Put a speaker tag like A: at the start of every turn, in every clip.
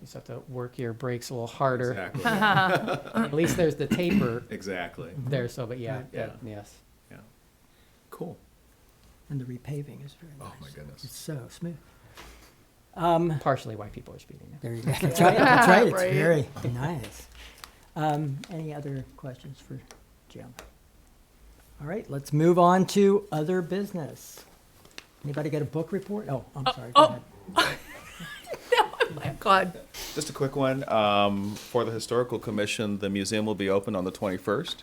A: just have to work your brakes a little harder.
B: Exactly.
A: At least there's the taper
B: exactly.
A: there, so, but yeah,
B: Yeah.
A: that- yes.
B: Yeah. Cool.
C: And the repaving is very nice.
B: Oh my goodness.
C: It's so smooth.
A: Partially why people are speeding.
C: There you go. That's right, that's right, it's
D: Right.
C: very nice. Um, any other questions for Jim? All right, let's move on to other business. Anybody got a book report? Oh, I'm sorry, go
D: oh.
C: ahead.
D: My God.
B: Just a quick one. Um, for the Historical Commission, the museum will be open on the 21st.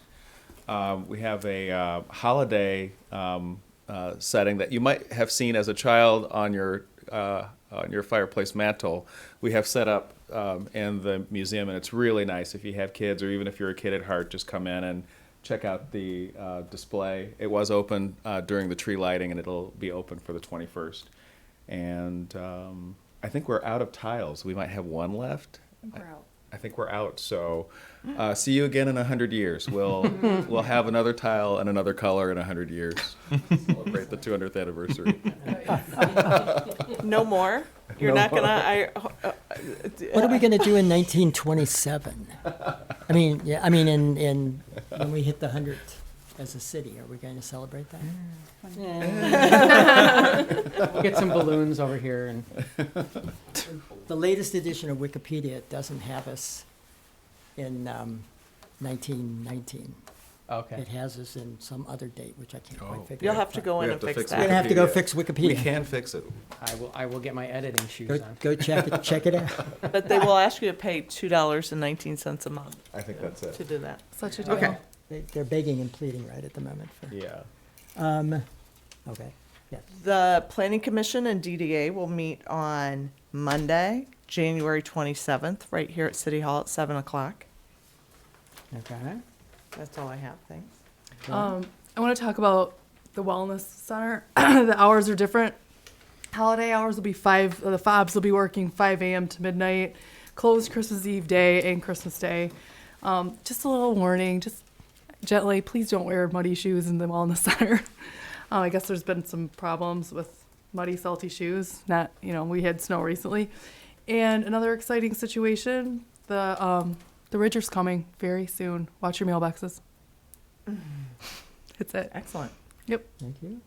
B: Um, we have a uh, holiday um, uh, setting that you might have seen as a child on your uh, on your fireplace mantle. We have set up um, in the museum, and it's really nice. If you have kids, or even if you're a kid at heart, just come in and check out the uh, display. It was open uh, during the tree lighting, and it'll be open for the 21st. And um, I think we're out of tiles. We might have one left. I think we're out. So, uh, see you again in a hundred years. We'll we'll have another tile and another color in a hundred years. Celebrate the 200th anniversary.
E: No more. You're not gonna. I. Uh,
C: What are we gonna do in nineteen twenty-seven? I mean, yeah, I mean, in, in, when we hit the hundredth as a city, are we gonna celebrate that?
E: uh,
A: We'll Get some balloons over here and
C: The latest edition of Wikipedia doesn't have us in, um, nineteen nineteen.
A: Okay.
C: It has us in some other date, which I can't
B: Oh.
C: quite figure out.
E: you'll have to go
B: We
E: in
B: have
E: and
B: to
E: fix
B: fix
C: We're
E: that.
C: gonna have to go
B: Wikipedia.
C: fix
B: We
C: Wikipedia.
B: can fix it.
A: I will, I will get my editing shoes
C: Go,
A: on.
C: go check it, check it out.
E: But they will ask you to pay two dollars and nineteen cents a month
B: I think that's
E: to
B: it.
E: do that.
D: Such a deal.
B: Okay.
C: They- They're begging and pleading right at the moment for,
B: Yeah.
C: um, okay, yes.
E: The Planning Commission and DDA will meet on Monday, January twenty-seventh, right here at City Hall at seven o'clock.
C: Okay.
E: That's all I have, thanks.
D: Um, I want to talk about the wellness center. the hours are different. Holiday hours will be five. uh, The fobs will be working five a.m. to midnight. Closed Christmas Eve day and Christmas Day. Um, just a little warning. Just gently, please don't wear muddy shoes in the wellness center. um, I guess there's been some problems with muddy, salty shoes. Not, you know, we had snow recently. And another exciting situation: the um, the Ridger's coming very soon. Watch your mailboxes. That's it.
E: Excellent.
C: Thank you.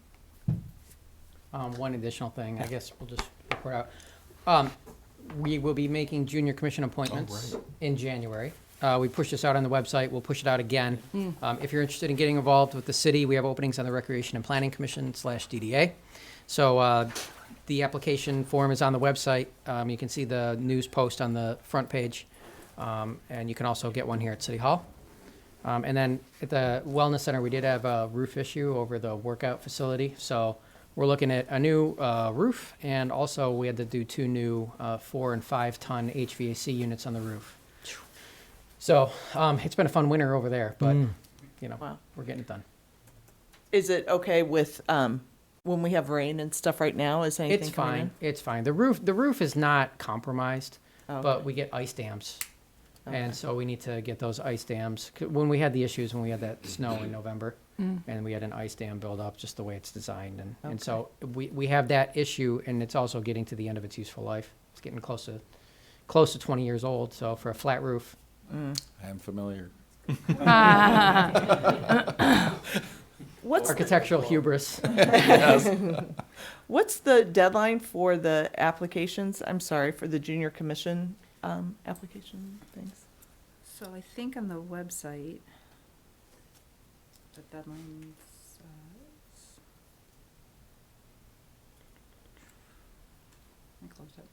A: Um, one additional thing, I guess we'll just report out. Um, we will be making junior commission appointments in January. Uh, we pushed this out on the website, we'll push it out again. Um, if you're interested in getting involved with the city, we have openings on the Recreation and Planning Commission slash DDA. So, uh, the application form is on the website. Um, you can see the news post on the front page. Um, and you can also get one here at City Hall. Um, and then at the Wellness Center, we did have a roof issue over the workout facility. So we're looking at a new uh, roof, and also we had to do two new uh, four and five ton HVAC units on the roof. So um, it's been a fun winter over there, but
C: Mm.
A: you know
E: Wow.
A: we're getting it done.
E: Is it okay with, um, when we have rain and stuff right now, is anything
A: It's
E: coming
A: fine.
E: in?
A: It's fine. The roof the roof is not compromised,
E: Oh,
A: but
E: okay.
A: we get ice dams,
E: Okay.
A: and so we need to get those ice dams. 'Cause When we had the issues when we had that snow in November,
D: Mm.
A: and we had an ice dam build up, just the way it's designed, and and so we we have that issue, and it's also getting to the end of its useful life. It's getting close to close to 20 years old. So for a flat roof,
B: I am familiar.
E: What's,
A: architectural hubris.
E: what's the deadline for the applications? I'm sorry, for the junior commission, um, application things?
F: So I think on the website, the deadline says. I closed it.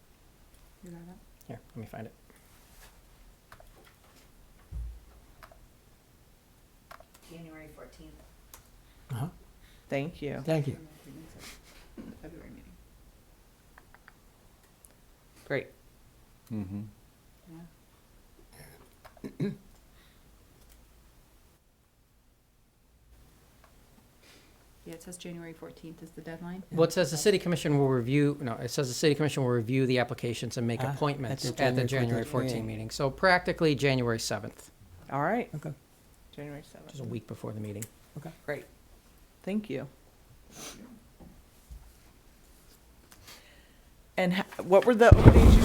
F: You got it?
A: Here, let me find it.
F: January fourteenth.
E: Thank you.
C: Thank you.
F: February meeting,
E: Great.
B: Mm-hmm.
F: yeah. Yeah, it says January fourteenth is the deadline.
A: Well, it says the city commission will review, no, it says the city commission will review the applications and make
C: Ah, at
A: appointments
C: the
A: at the
C: January
A: January
C: 14th
A: 14
C: meeting.
A: meeting. So practically January 7th,
E: All right,
C: Okay.
E: January
A: which is a
E: seventh.
A: week before the meeting.
E: Great. Thank you. And ha- what were the openings you